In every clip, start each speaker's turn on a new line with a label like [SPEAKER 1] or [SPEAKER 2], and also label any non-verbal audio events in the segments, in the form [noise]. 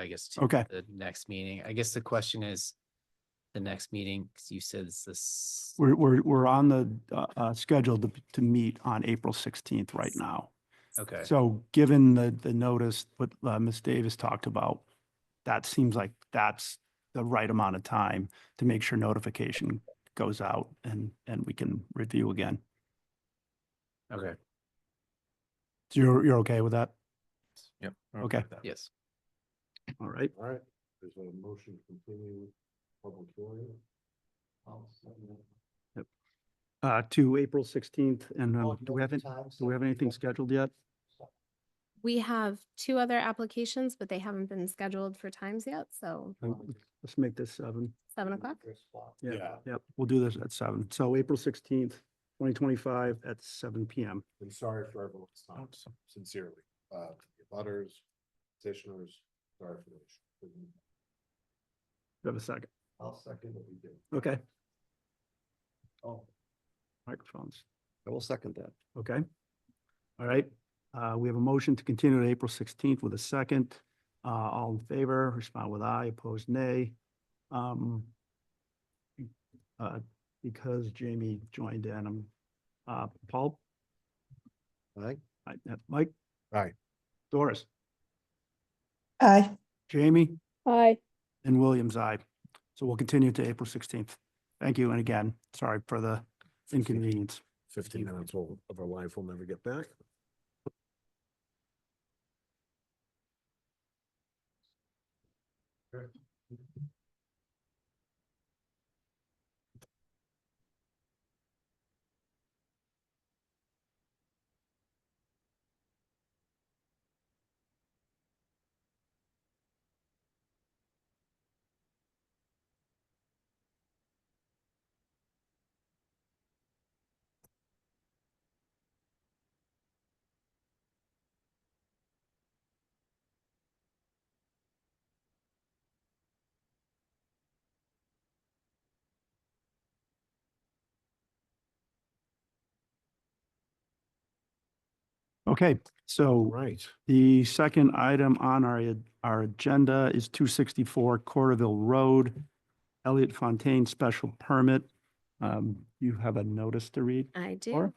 [SPEAKER 1] I guess. to
[SPEAKER 2] Okay.
[SPEAKER 1] The next meeting. I guess the question is, the next meeting, 'cause you said it's this,
[SPEAKER 2] We're, we're, we're on the, uh, uh, schedule to, to meet on April 16th right now.
[SPEAKER 1] okay,
[SPEAKER 2] So given the, the notice, what uh, Ms. Davis talked about, that seems like that's the right amount of time to make sure notification goes out and, and we can review again.
[SPEAKER 1] okay,
[SPEAKER 2] So you're, you're okay with that?
[SPEAKER 3] Yep.
[SPEAKER 2] Okay.
[SPEAKER 3] with that.
[SPEAKER 1] yes.
[SPEAKER 2] All right.
[SPEAKER 4] All right, there's a motion to continue public hearing.
[SPEAKER 2] Uh, to April 16th and
[SPEAKER 4] Oh,
[SPEAKER 2] um, do we have, any- do we have anything scheduled yet?
[SPEAKER 5] We have two other applications, but they haven't been scheduled for times yet, so
[SPEAKER 2] Um, Let's make this seven.
[SPEAKER 4] Mm.
[SPEAKER 5] seven o'clock.
[SPEAKER 4] Yeah,
[SPEAKER 2] Yep, we'll do this at seven. So April 16th, 2025 at seven PM.
[SPEAKER 4] I'm sorry for everyone's time,
[SPEAKER 2] Oh.
[SPEAKER 3] Oops.
[SPEAKER 4] sincerely, uh, butters, petitioners, sorry for the issue.
[SPEAKER 2] Do you have a second?
[SPEAKER 4] I'll second what we did.
[SPEAKER 2] Okay,
[SPEAKER 4] Oh,
[SPEAKER 2] microphones.
[SPEAKER 4] I will second that.
[SPEAKER 2] Okay. All right, uh, we have a motion to continue to April sixteenth with a second. Uh, all in favor, respond with aye, opposed nay. Um, uh, because Jamie joined in, um, uh, Paul?
[SPEAKER 4] Aye.
[SPEAKER 2] I- uh, Mike?
[SPEAKER 4] Aye.
[SPEAKER 2] Doris?
[SPEAKER 6] Aye.
[SPEAKER 2] Jamie?
[SPEAKER 6] Aye.
[SPEAKER 2] And Williams, aye. So we'll continue to April sixteenth. Thank you, and again, sorry for the inconvenience.
[SPEAKER 4] Fifteen minutes of of our life we'll never get back.
[SPEAKER 2] Okay, so.
[SPEAKER 4] Right.
[SPEAKER 2] The second item on our, ag- our agenda is two sixty-four Corderville Road, Elliott Fontaine Special Permit. Um, you have a notice to read?
[SPEAKER 5] I
[SPEAKER 2] Laura?
[SPEAKER 5] do.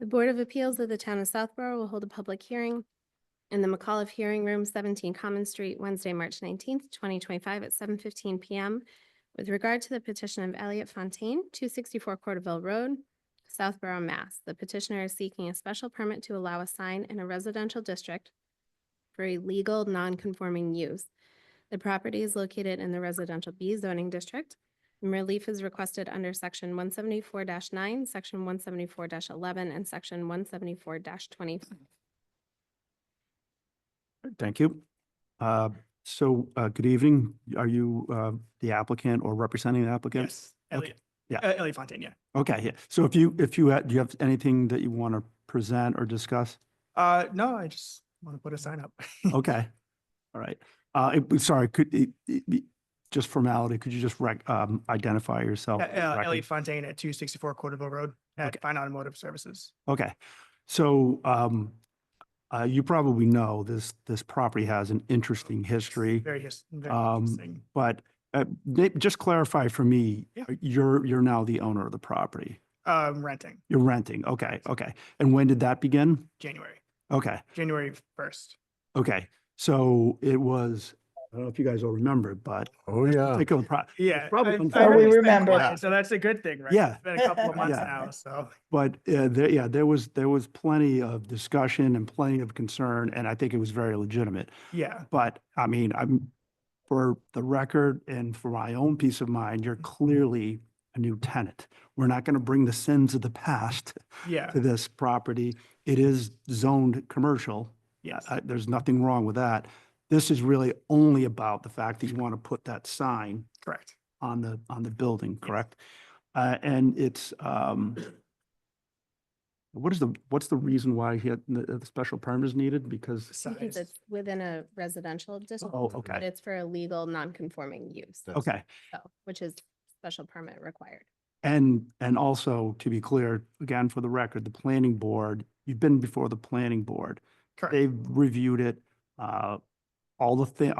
[SPEAKER 5] The Board of Appeals of the Town of Southborough will hold a public hearing in the McAuliffe Hearing Room, 17 Common Street, Wednesday, March 19th, 2025 at 7:15 PM with regard to the petition of Elliot Fontaine, 264 Corderville Road, Southborough, Mass. The petitioner is seeking a special permit to allow a sign in a residential district for a legal non-conforming use. The property is located in the residential B zoning district and Relief is requested under section one seventy-four nine, section one seventy-four eleven, and section one seventy-four twenty.
[SPEAKER 2] Thank you. Uh, so, uh, good evening. Are you, uh, the applicant or representing the applicant?
[SPEAKER 7] Yes, Elliot.
[SPEAKER 2] Yeah.
[SPEAKER 7] Uh, Elliot Fontaine, yeah.
[SPEAKER 2] Okay, yeah. So if you, if you, ha- do you have anything that you want to present or discuss?
[SPEAKER 7] Uh, no, I just want to put a sign up.
[SPEAKER 2] Okay. All right. Uh, it- sorry, could, it, it, be- just formality, could you just rec, um, identify yourself?
[SPEAKER 7] [laughs] Uh,
[SPEAKER 2] for the
[SPEAKER 7] uh,
[SPEAKER 2] record?
[SPEAKER 7] Elliot Fontaine at two sixty-four Corderville Road at Fine Automotive Services.
[SPEAKER 2] Okay, so um, uh, you probably know this, this property has an interesting history.
[SPEAKER 7] Very his, very
[SPEAKER 2] Um,
[SPEAKER 7] interesting.
[SPEAKER 2] But uh, may- just clarify for me, uh,
[SPEAKER 7] Yeah.
[SPEAKER 2] you're, you're now the owner of the property.
[SPEAKER 7] Um, renting,
[SPEAKER 2] You're renting, okay, okay. And when did that begin?
[SPEAKER 7] January,
[SPEAKER 2] Okay,
[SPEAKER 7] January first.
[SPEAKER 2] okay. So it was, I don't know if you guys all remember, but
[SPEAKER 4] Oh, yeah.
[SPEAKER 2] particular pro-
[SPEAKER 7] Yeah.
[SPEAKER 2] probably
[SPEAKER 7] I- I
[SPEAKER 2] unfair.
[SPEAKER 6] Oh, we
[SPEAKER 7] noticed that
[SPEAKER 6] remember.
[SPEAKER 7] quickly, So that's a good thing, right?
[SPEAKER 2] Yeah.
[SPEAKER 7] It's Been a couple of months
[SPEAKER 2] [laughs] Yeah.
[SPEAKER 7] now, so.
[SPEAKER 2] But uh, there, yeah, there was, there was plenty of discussion and plenty of concern, and I think it was very legitimate.
[SPEAKER 7] Yeah,
[SPEAKER 2] But I mean, I'm, for the record and for my own peace of mind, you're clearly a new tenant. We're not going to bring the sins of the past
[SPEAKER 7] yeah,
[SPEAKER 2] to this property. It is zoned commercial.
[SPEAKER 7] yes.
[SPEAKER 2] I- There's nothing wrong with that. This is really only about the fact that you want to put that sign
[SPEAKER 7] correct.
[SPEAKER 2] on the, on the building, correct? Uh, and it's, um, what is the, what's the reason why he had, the, the special permit is needed? Because
[SPEAKER 5] Because
[SPEAKER 7] Size.
[SPEAKER 5] it's within a residential district.
[SPEAKER 2] Oh, okay.
[SPEAKER 5] But it's for a legal non-conforming use,
[SPEAKER 2] Okay,
[SPEAKER 5] so, which is special permit required.
[SPEAKER 2] And, and also, to be clear, again, for the record, the planning board, you've been before the planning board.
[SPEAKER 7] Correct.
[SPEAKER 2] They've reviewed it, uh, all the thi,